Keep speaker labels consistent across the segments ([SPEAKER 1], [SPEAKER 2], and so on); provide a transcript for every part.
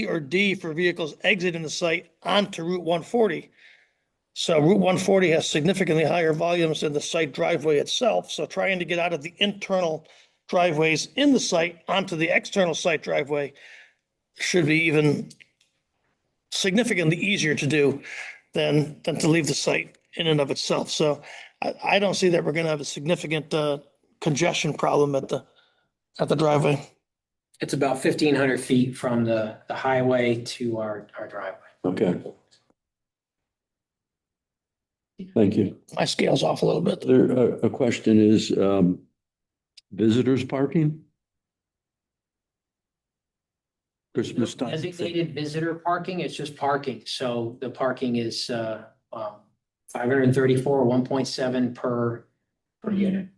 [SPEAKER 1] C or D for vehicles exiting the site onto Route one forty. So Route one forty has significantly higher volumes than the site driveway itself, so trying to get out of the internal driveways in the site onto the external site driveway should be even significantly easier to do than, than to leave the site in and of itself. So I, I don't see that we're gonna have a significant, uh, congestion problem at the, at the driveway.
[SPEAKER 2] It's about fifteen hundred feet from the, the highway to our, our driveway.
[SPEAKER 3] Okay. Thank you.
[SPEAKER 1] My scale's off a little bit.
[SPEAKER 3] There, a, a question is, um, visitors parking? Christmas time.
[SPEAKER 2] Designated visitor parking, it's just parking, so the parking is, uh, um, five hundred and thirty-four, one point seven per, per unit.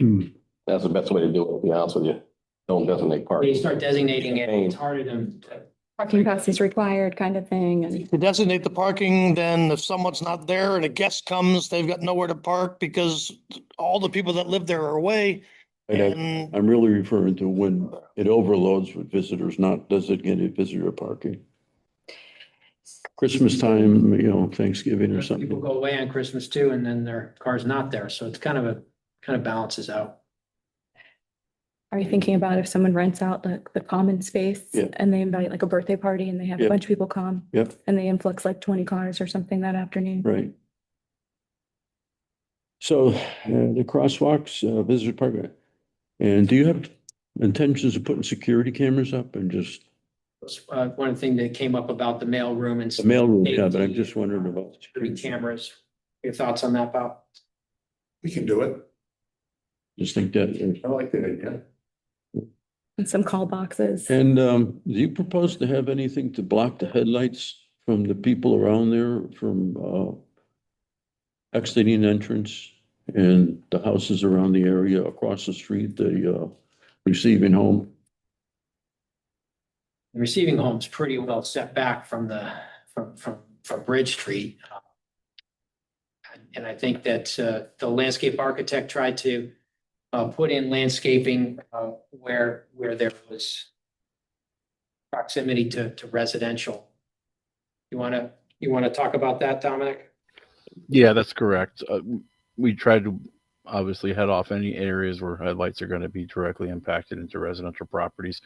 [SPEAKER 3] Hmm.
[SPEAKER 4] That's the best way to do it, to be honest with you. Don't designate
[SPEAKER 2] They
[SPEAKER 4] parking.
[SPEAKER 2] start designating it, it's harder than, uh,
[SPEAKER 5] Parking pass is required kind of thing and
[SPEAKER 1] To designate the parking, then if someone's not there and a guest comes, they've got nowhere to park because all the people that live there are away.
[SPEAKER 3] And I-
[SPEAKER 1] And
[SPEAKER 3] I'm really referring to when it overloads with visitors, not designated visitor parking. Christmas time, you know, Thanksgiving
[SPEAKER 2] people
[SPEAKER 3] or something.
[SPEAKER 2] go away on Christmas too, and then their car's not there, so it's kind of a, kind of balances out.
[SPEAKER 5] are you thinking about if someone rents out like the common space?
[SPEAKER 3] Yeah.
[SPEAKER 5] And they invite like a birthday party and they have
[SPEAKER 3] Yeah.
[SPEAKER 5] a bunch of people come
[SPEAKER 3] Yep,
[SPEAKER 5] and they influx like twenty cars or something that afternoon?
[SPEAKER 3] right. So uh, the crosswalks, uh, visitor parking. And do you have intentions of putting security cameras up and just
[SPEAKER 2] Uh, one thing that came up about the mailroom and.
[SPEAKER 3] the mailroom? Yeah, but I'm just wondering about.
[SPEAKER 2] Security cameras. Your thoughts on that, Bob?
[SPEAKER 6] We can do it.
[SPEAKER 3] Just think that. uh,
[SPEAKER 6] I like that idea.
[SPEAKER 5] And some call boxes.
[SPEAKER 3] And um, do you propose to have anything to block the headlights from the people around there from uh exiting entrance and the houses around the area across the street, the uh receiving home?
[SPEAKER 2] The receiving home's pretty well set back from the, from, from, from Bridge Street. And I think that uh, the landscape architect tried to uh, put in landscaping uh, where, where there was proximity to, to residential. You want to, you want to talk about that, Dominic?
[SPEAKER 7] Yeah, that's correct. Uh, w- we try to obviously head off any areas where headlights are going to be directly impacted into residential properties,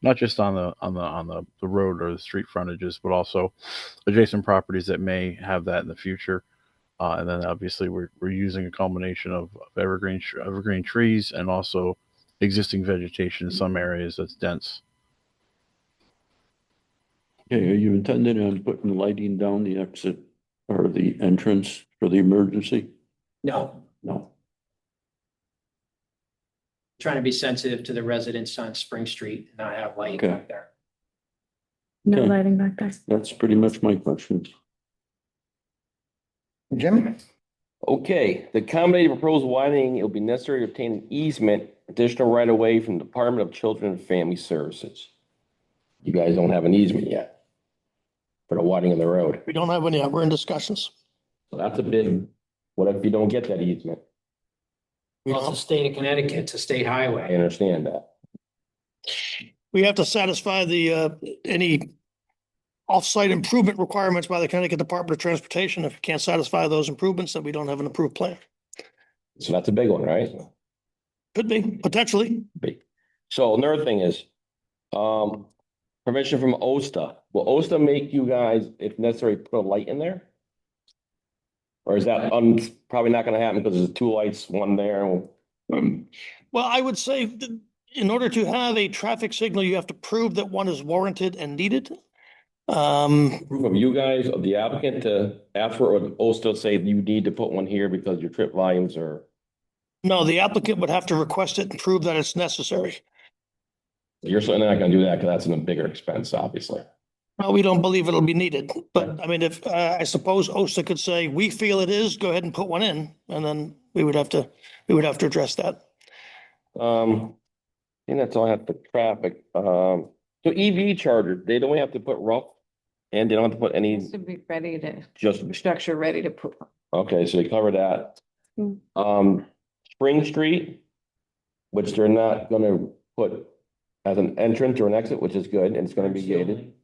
[SPEAKER 7] not just on the on the on the, the road or the street frontages, but also adjacent properties that may have that in the future. Uh, and then obviously we're we're using a combination of, of evergreen tr- evergreen trees and also existing vegetation in some areas that's dense.
[SPEAKER 3] Okay, are you intending on putting lighting down the exit or the entrance for the emergency?
[SPEAKER 2] No.
[SPEAKER 3] No.
[SPEAKER 2] Trying to be sensitive to the residents on Spring Street and not have light
[SPEAKER 3] Okay.
[SPEAKER 2] back there.
[SPEAKER 5] No
[SPEAKER 3] Okay.
[SPEAKER 5] lighting back there.
[SPEAKER 3] That's pretty much my question.
[SPEAKER 6] Jim?
[SPEAKER 4] Okay, the accommodated proposed widening, it'll be necessary to obtain an easement, additional right of way from Department of Children and Family Services. You guys don't have an easement yet for the widening of the road.
[SPEAKER 1] we don't have any, we're in discussions.
[SPEAKER 4] So that's a big, what if you don't get that easement?
[SPEAKER 1] We don't
[SPEAKER 2] Well,
[SPEAKER 1] have-
[SPEAKER 2] it's the state of Connecticut, it's a state highway.
[SPEAKER 4] I understand that.
[SPEAKER 1] we have to satisfy the, uh, any off-site improvement requirements by the Connecticut Department of Transportation. If we can't satisfy those improvements, then we don't have an approved plan.
[SPEAKER 4] So that's a big one, right?
[SPEAKER 1] Could be, potentially.
[SPEAKER 4] Big. So another thing is, um, permission from OSTA. Will OSTA make you guys, if necessary, put a light in there? Or is that un- probably not gonna happen because there's two lights, one there? Um, and-
[SPEAKER 1] Well, I would say th- in order to have a traffic signal, you have to prove that one is warranted and needed. Um,
[SPEAKER 4] Proof of you guys, of the applicant to ask for, or OSTA say you need to put one here because your trip volumes are,
[SPEAKER 1] no, the applicant would have to request it and prove that it's necessary.
[SPEAKER 4] you're certainly not gonna do that because that's in a bigger expense, obviously.
[SPEAKER 1] Well, we don't believe it'll be needed, but I mean, if, uh, I suppose OSTA could say, we feel it is, go ahead and put one in. And then we would have to, we would have to address that.
[SPEAKER 4] Um, I think that's all I have for traffic. Um, so EV charger, they don't have to put rough and they don't have to put any
[SPEAKER 8] Needs to be ready to,
[SPEAKER 4] Just,
[SPEAKER 8] structure ready to put.
[SPEAKER 4] okay, so they cover that.
[SPEAKER 5] Hmm.
[SPEAKER 4] Um, Spring Street, which they're not gonna put as an entrance or an exit, which is good, and it's gonna be gated.